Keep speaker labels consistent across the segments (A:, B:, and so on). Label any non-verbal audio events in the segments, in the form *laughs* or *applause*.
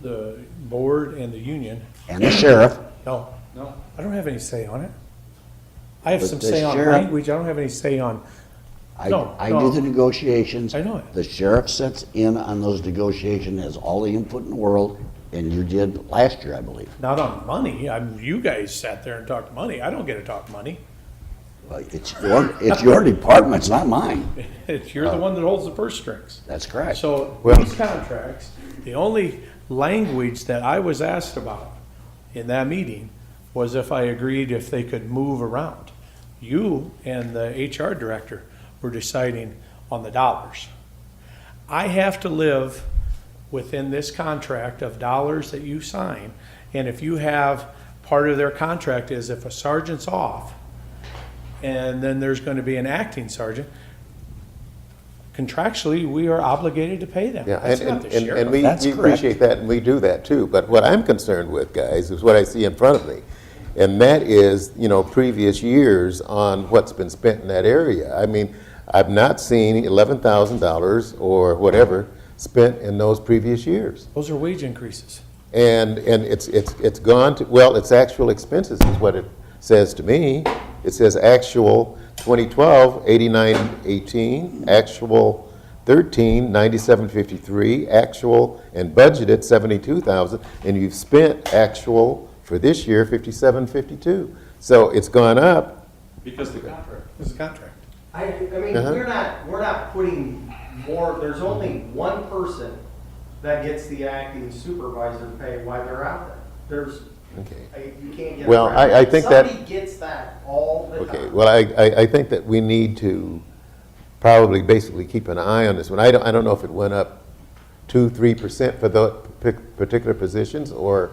A: the board and the union.
B: and the sheriff.
A: No, no, I don't have any say on it. I have
B: But
A: some
B: the
A: say on
B: sheriff-
A: language, I don't have any say on,
B: I,
A: No,
B: I
A: no.
B: do the negotiations.
A: I know it.
B: The sheriff sits in on those negotiations, has all the input in the world, and you did last year, I believe.
A: not on money. I'm, you guys sat there and talked money. I don't get to talk money. *laughs*
B: Well, It's your, it's your department, it's not mine.
A: It's, you're the one that holds the purse strings.
B: That's correct.
A: So
C: Well-
A: these contracts, the only language that I was asked about in that meeting was if I agreed if they could move around. You and the HR director were deciding on the dollars. I have to live within this contract of dollars that you sign. And if you have, part of their contract is if a sergeant's off, and then there's going to be an acting sergeant, contractually, we are obligated to pay them.
C: Yeah,
A: That's
C: and,
A: not
C: and,
A: the
C: and- and
A: sheriff.
C: we
B: That's
C: we
B: correct.
C: appreciate that, and we do that too. But what I'm concerned with, guys, is what I see in front of me. And that is, you know, previous years on what's been spent in that area. I mean, I've not seen eleven thousand dollars or whatever spent in those previous years.
A: Those are wage increases.
C: And, and it's, it's, it's gone to, well, it's actual expenses is what it says to me. It says actual 2012, 8918, actual 13, 9753, actual and budgeted 72,000, and you've spent actual for this year 5752. So it's gone up,
D: Because the contract.
A: It's a contract.
E: I, I mean,
C: Uh-huh.
E: we're not, we're not putting more, there's only one person that gets the acting supervisor pay while they're out there. There's,
C: okay.
E: I- you can't get.
C: Well, I- I think that-
E: Somebody gets that all the
C: Okay,
E: time.
C: well, I, I, I think that we need to probably basically keep an eye on this one. I don't, I don't know if it went up two, three percent for the pic- particular positions or,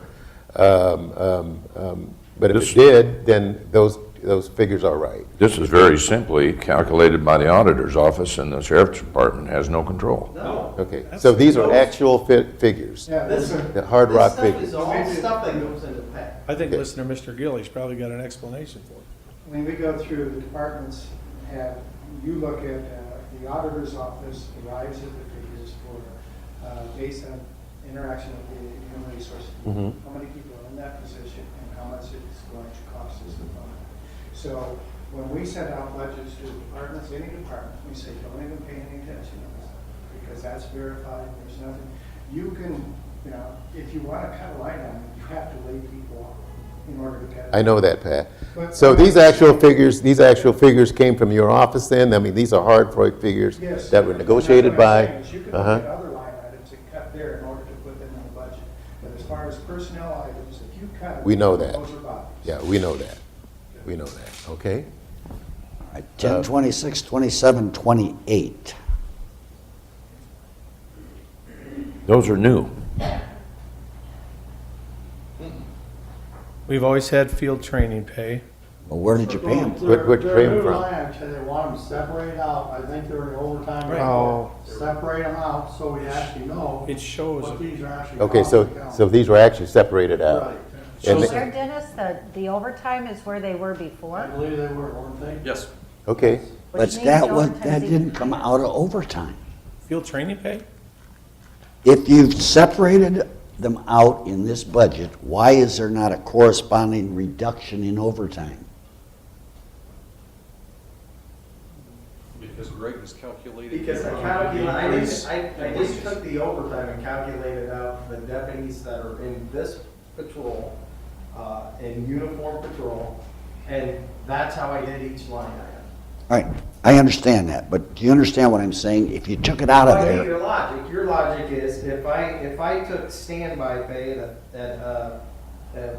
C: um, um, um, but if
F: This-
C: it did, then those, those figures are right.
F: This is very simply calculated by the auditor's office, and the sheriff's department has no control.
E: No.
C: Okay, so these are actual fi- figures,
G: Yeah,
E: This,
G: listen,
E: this
C: the hard rock
E: stuff
C: figures.
E: is all stuff that goes into pay.
A: I think listener Mr. Gillies probably got an explanation for it.
G: when we go through the departments, have, you look at, uh, the auditor's office arrives at the figures for, uh, based on interaction with the human resources. How many people are in that position and how much it's going to cost us to fund it. So when we send out budgets to departments, any department, we say, don't even pay any attention to this because that's verified, there's nothing. You can, you know, if you want to cut a line item, you have to lay people off in order to cut. it.
C: I know that, Pat. So these actual figures, these actual figures came from your office then? I mean, these are hard Freud figures
G: Yes.
C: that were negotiated
G: And that's what
C: by?
G: I'm saying, is You can
C: Uh-huh.
G: look at other line items and cut there in order to put them in the budget. But as far as personnel items, if you cut.
C: We know that.
G: Those are bodies.
C: Yeah, we know that. We know that, okay?
B: All right,
A: uh,
B: 10, 26, 27, 28.
F: Those are new.
A: We've always had field training pay.
B: Well, where did you pay him?
C: Where- where'd you pay 'em from?
H: Actually, they want them separated out, I think they're in overtime.
A: Right. Oh.
H: Separate them out, so we actually know
A: It shows
H: what these are actually.
C: Okay, so,
H: costing us.
C: so these were actually separated out.
H: Right,
C: And
A: So-
C: they-
I: Where Dennis, the, the overtime is where they were
H: I
I: before?
H: believe they were, weren't they?
D: Yes.
C: Okay,
I: which
B: But
I: means
B: that
I: the
B: was,
I: overtime's
B: that
I: even
B: didn't come
I: higher.
B: out of overtime.
A: Field training pay?
B: If you've separated them out in this budget, why is there not a corresponding reduction in overtime?
D: Because Greg was calculating.
E: Because I calculated, I didn't, I, I just took the overtime and calculated out the deputies that are in this patrol, uh, in uniform patrol, and that's how I did each line item.
B: All right, I understand that, but do you understand what I'm saying? If you took it out of
E: Well, I get
B: there,
E: Your logic, your logic is if I, if I took standby pay at, a- at, uh, at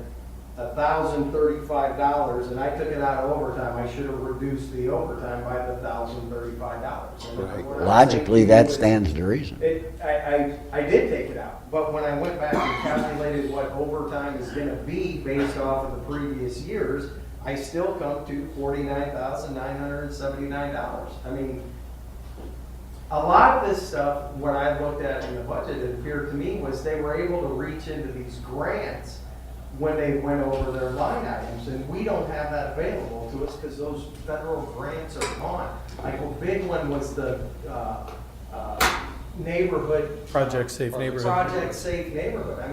E: a thousand thirty-five dollars and I took it out of overtime, I should have reduced the overtime by the thousand thirty-five dollars.
B: logically, that stands to reason.
E: It, I, I, I did take it out, but when I went back and calculated what overtime is gonna be based off of the previous years, I still come to forty-nine thousand nine hundred and seventy-nine dollars. I mean, a lot of this stuff, when I looked at in the budget, it appeared to me was they were able to reach into these grants when they went over their line items, and we don't have that available to us because those federal grants are gone. Like, a big one was the, uh, uh, neighborhood.
A: Project Safe Neighborhood.
E: Project Safe Neighborhood. I mean,